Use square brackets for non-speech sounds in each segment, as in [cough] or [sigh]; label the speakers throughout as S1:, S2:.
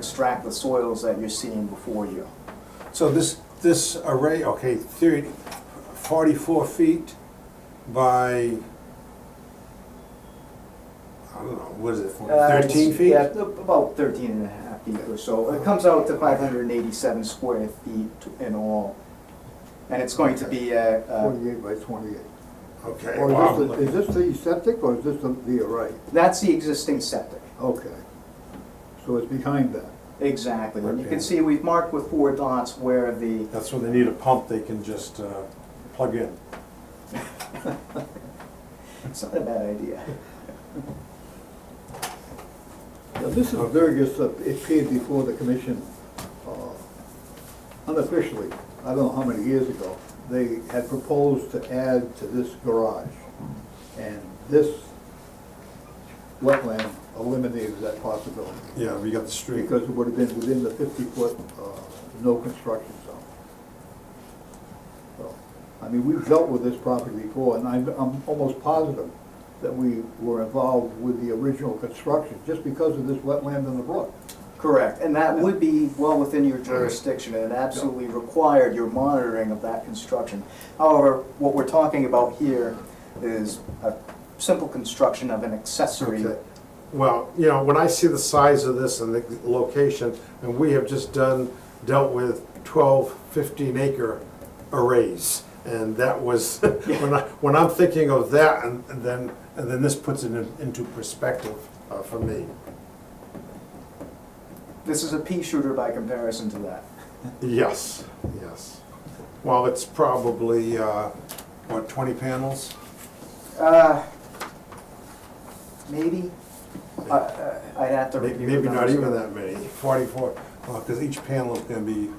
S1: extract the soils that you're seeing before you.
S2: So this, this array, okay, thirty, forty-four feet by, I don't know, what is it,
S1: Uh,
S2: thirteen
S1: it's-
S2: feet?
S1: Yeah, about 13 and a half feet or so. It comes out to 587 square feet in all. And it's going to be uh, a, a-
S3: Twenty-eight by twenty-eight.
S2: Okay, wow,
S3: Or is this, the- is this the septic or is this the- the array?
S1: that's the existing septic.
S3: Okay. So it's behind that.
S1: Exactly. And you
S2: Okay.
S1: can see we've marked with four dots where the,
S2: that's when they need a pump, they can just uh, plug in.
S1: it's not a bad idea.
S3: Now, this is Vergus, uh, it appeared before the commission uh, unofficially, I don't know how many years ago. They had proposed to add to this garage. And this wetland eliminated that possibility.
S2: Yeah, we got the street.
S3: Because it would have been within the fifty-foot, uh, no construction zone. So, I mean, we've dealt with this property before, and I'm, I'm almost positive that we were involved with the original construction, just because of this wetland in the brook.
S1: Correct. And that would be well within your jurisdiction and it absolutely required your monitoring of that construction. However, what we're talking about here is a simple construction of an accessory
S2: Okay. Well, you know, when I see the size of this and the location, and we have just done, dealt with 12, 15 acre arrays. And that was, [laughs] when I, when I'm thinking of that, and and then, and then this puts it in- into perspective uh, for me.
S1: This is a pea shooter by comparison to that.
S2: Yes, yes. Well, it's probably, uh, what, 20 panels?
S1: Uh, Maybe, I- I- I'd have to
S2: May-
S1: review.
S2: Maybe
S1: the
S2: not even
S1: numbers.
S2: that many, 44, because each panel is gonna be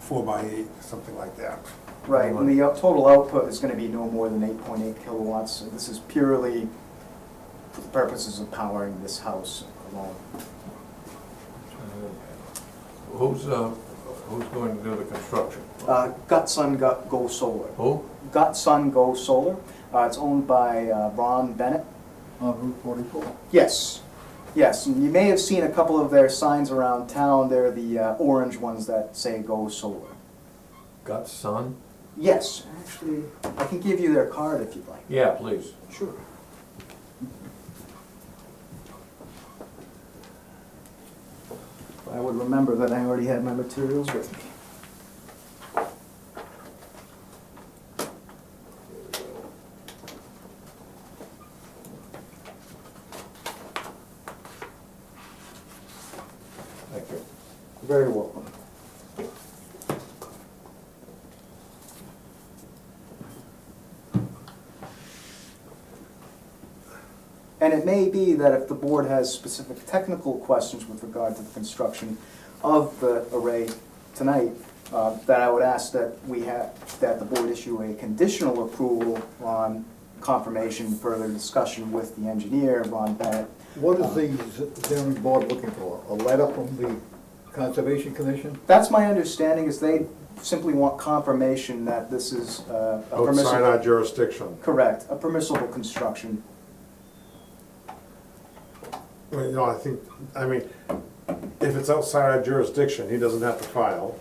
S2: four by eight, something like that.
S1: Right, and the out- total output is gonna be no more than eight point eight kilowatts. So This is purely for the purposes of powering this house alone.
S4: Who's, uh, who's going to do the construction?
S1: Uh, Gut Sun Go Go Solar.
S4: Who?
S1: Gut Sun Go Solar, uh, it's owned by uh, Ron Bennett.
S3: On Route forty-four.
S1: Yes, yes, and you may have seen a couple of their signs around town. They're the uh, orange ones that say Go Solar.
S4: Got son?
S1: Yes, actually, I can give you their card if you'd like.
S4: Yeah, please.
S1: Sure. I would remember that I already had my materials with me.
S4: Thank you.
S1: Very welcome. And it may be that if the board has specific technical questions with regard to the construction of the array tonight, uh, that I would ask that we have, that the board issue a conditional approval on confirmation, further discussion with the engineer, Ron Bennett.
S3: What is the zoning board looking for? A letter from the Conservation Commission?
S1: That's my understanding, is they simply want confirmation that this is uh, a
S2: Outside our
S1: permissible.
S2: jurisdiction.
S1: Correct, a permissible construction.
S2: Well, you know, I think, I mean, if it's outside our jurisdiction, he doesn't have to file,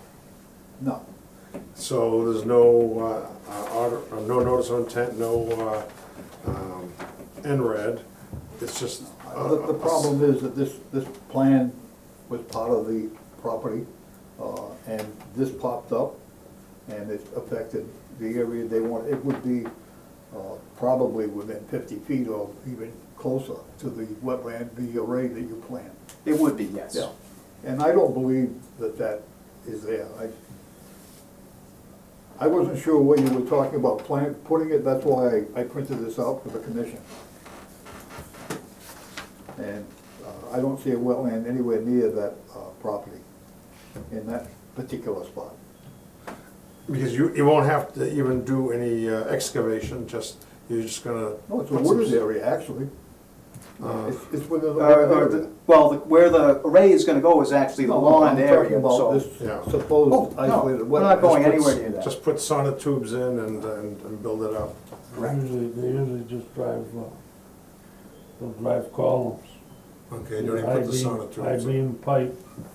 S3: No.
S2: so there's no, uh, uh, order- uh, no notice of intent, no, uh, um, NRED, it's just. uh,
S3: The, the problem is that this, this plan was part of the property, uh, and this popped up, and it affected the area they want. It would be, uh, probably within fifty feet or even closer to the wetland, the array that you planned.
S1: It would be, yes.
S3: And I don't believe that that is there. I, I wasn't sure what you were talking about, plan, putting it, that's why I, I printed this out for the commission. And uh, I don't see a wetland anywhere near that uh, property, in that particular spot.
S2: Because you, you won't have to even do any uh, excavation, just, you're just gonna.
S3: No, it's a
S2: put some
S3: wooded
S2: s-
S3: area, actually. It's, it's within Uh, the
S1: Or- Uh,
S3: wooded
S1: or
S3: area.
S1: the- Well, the- where the array is gonna go is actually the
S3: No,
S1: lawn area,
S3: I'm talking about
S1: so.
S2: Yeah.
S3: this supposed
S1: Oh, no,
S3: isolated wetland.
S1: we're not going
S2: Just put-
S1: anywhere near that.
S2: Just put sonotubes in and, and and build it up.
S5: Usually, they usually just drive, uh, they'll drive columns.
S2: Okay, you don't even put the
S5: I-beam-
S2: sonotubes in.
S5: I-beam pipe